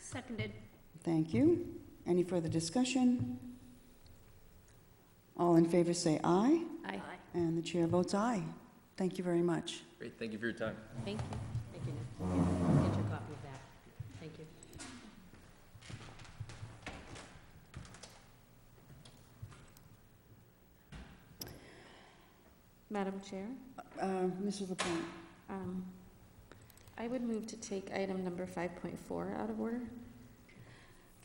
Seconded. Thank you. Any further discussion? All in favor say aye, Aye. and the chair votes aye. Thank you very much. Great, thank you for your time. Thank you. Thank you, Nick. Get your copy of that. Thank you. Madam Chair, Uh, Mrs. LaPointe? um, I would move to take item number 5.4 out of order.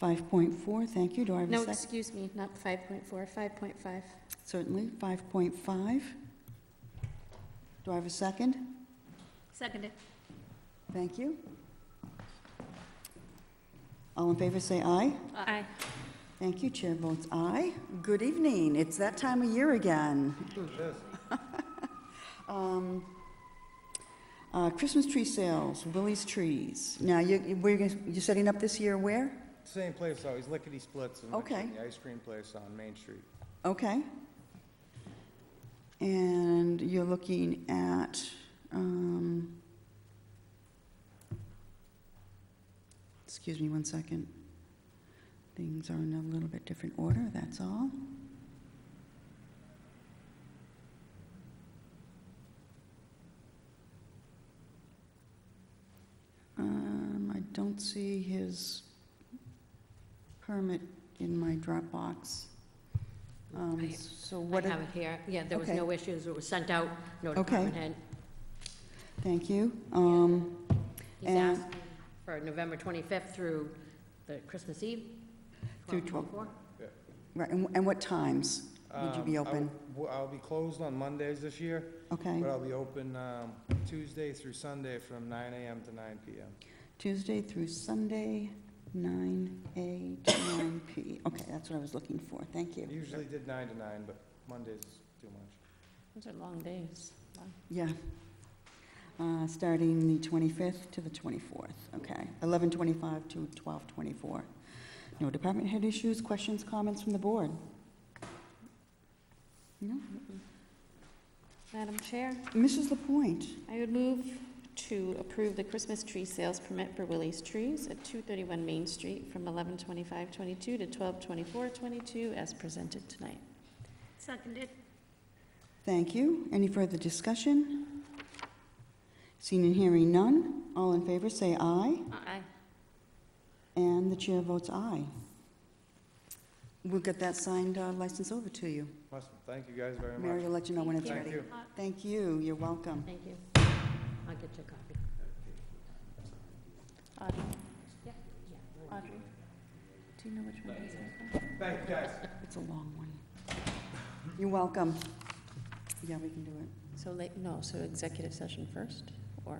5.4, thank you. Do I have a No, second? excuse me, not 5.4, 5.5. Certainly. 5.5. Do I have a second? Seconded. Thank you. All in favor say aye. Aye. Thank you. Chair votes aye. Good evening. It's that time of year again. Um, uh, Christmas tree sales, Willie's Trees. Now, you, you- where you, you're setting up this year where? Same place always, Lickety Splits. in Okay. Richmond, The ice cream place on Main Street. Okay. And you're looking at, um, excuse me one second. Things are in a little bit different order, that's all. Um, I don't see his permit in my Dropbox. Um, I- so I what? have it here. Yeah, there was Okay. no issues. It was sent out, no Okay. department head. Thank you. Um, He's And- asking for November 25th through the Christmas Eve. Through 12. 12. Right, and and what times would you be Um, I open? w- I'll be closed on Mondays this year, Okay, but I'll be open um, Tuesday through Sunday from 9 AM to 9 PM. Tuesday through Sunday, 9 A to 9 P. Okay, that's what I was looking for, thank you. Usually did 9 to 9, but Mondays is too much. Those are long days. Yeah. Uh, Starting the 25th to the 24th, okay. 11:25 to 12:24. No department head issues, questions, comments from the board? No? Madam Chair, Mrs. Lapointe? I would move to approve the Christmas tree sales permit for Willie's Trees at 231 Main Street from 11:25:22 to 12:24:22 as presented tonight. Seconded. Thank you. Any further discussion? Seeing and hearing none, all in favor say aye, Aye. and the chair votes aye. We'll get that signed uh, license over to you. Awesome, thank you guys very Mary much. will let you know when it's Thank Thank ready. you. Thank you, you're welcome. Thank you. I'll get your copy. Audrey, Yeah. Audrey, do you know which one it is? Thank you, guys. It's a long one. You're welcome. Yeah, we can do it. So late, no, so executive session first, or?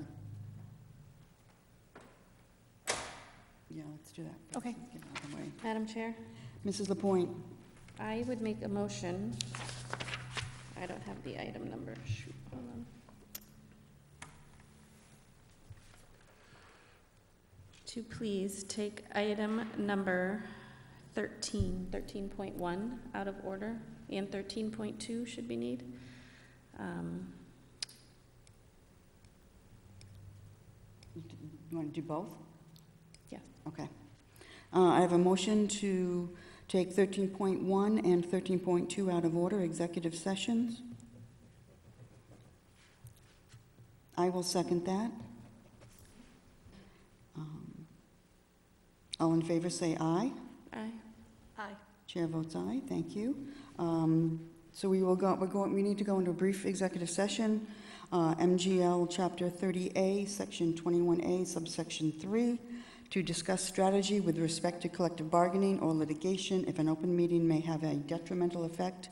Yeah, let's do that. Okay. Let's get out of the way. Madam Chair? Mrs. Lapointe, I would make a motion, I don't have the item number, shoot, hold on. To please take item number 13, 13.1 out of order, and 13.2 should be need. Um, you want to do both? Yeah. Okay. Uh, I have a motion to take 13.1 and 13.2 out of order, executive sessions. I will second that. Um, All in favor, say aye. Aye. Aye. Chair votes aye, thank you. Um, So we will go, we're going, we need to go into a brief executive session. uh, MGL Chapter 30A, Section 21A, subsection 3, to discuss strategy with respect to collective bargaining or litigation if an open meeting may have a detrimental effect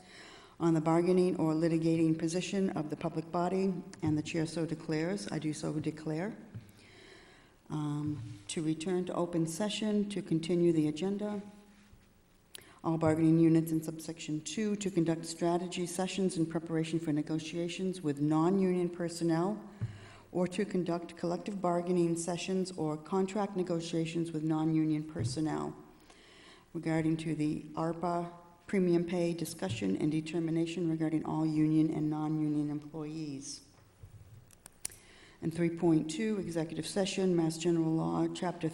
on the bargaining or litigating position of the public body, and the chair so declares, I do so declare. Um, To return to open session, to continue the agenda, all bargaining units in subsection two to conduct strategy sessions in preparation for negotiations with non-union personnel or to conduct collective bargaining sessions or contract negotiations with non-union personnel regarding to the ARPA premium pay discussion and determination regarding all union and non-union employees. And 3.2, executive session, Mass General Law, Chapter